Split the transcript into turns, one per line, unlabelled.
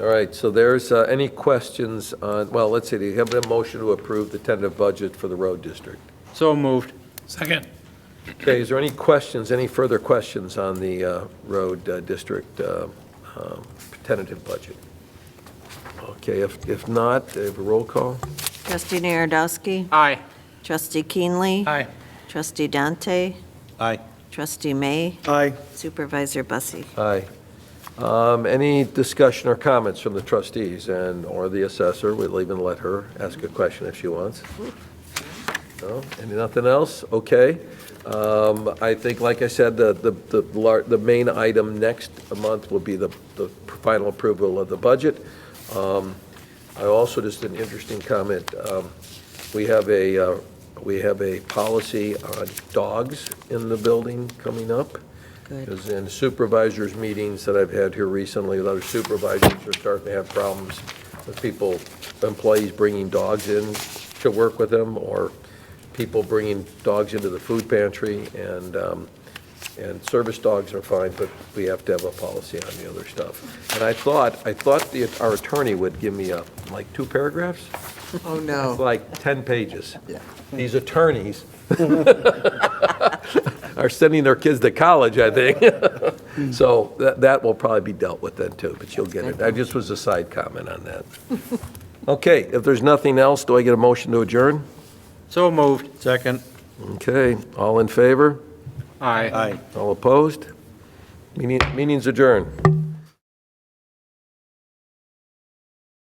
All right, so there's, uh, any questions on, well, let's see, do you have a motion to approve the tentative budget for the road district?
So moved.
Second.
Okay, is there any questions, any further questions on the uh, road uh, district uh, um, tentative budget? Okay, if, if not, uh, have a roll call?
Trustee Narodowski.
Aye.
Trustee Keenley.
Aye.
Trustee Dante.
Aye.
Trustee May.
Aye.
Supervisor Bussie.
Aye. Um, Any discussion or comments from the trustees and/or the assessor? We'll even let her ask a question if she wants. No? Any, nothing else? Okay. Um, I think, like I said, the, the, the lar- the main item next month will be the, the final approval of the budget. Um, I also, just an interesting comment, um, we have a, uh, we have a policy on dogs in the building coming up.
Good.
Because in supervisors' meetings that I've had here recently, with other supervisors are starting to have problems with people, employees bringing dogs in to work with them, or people bringing dogs into the food pantry, and, um, and service dogs are fine, but we have to have a policy on the other stuff. And I thought, I thought the, our attorney would give me a, like, two paragraphs?
Oh,
It's
no.
like 10 pages.
Yeah.
These attorneys are sending their kids to college, I think. So that, that will probably be dealt with then too, but you'll get it. I just was a side comment on that. Okay, if there's nothing else, do I get a motion to adjourn?
So moved. Second.
Okay, all in favor?
Aye.
All opposed? Meeting- Meeting's adjourned.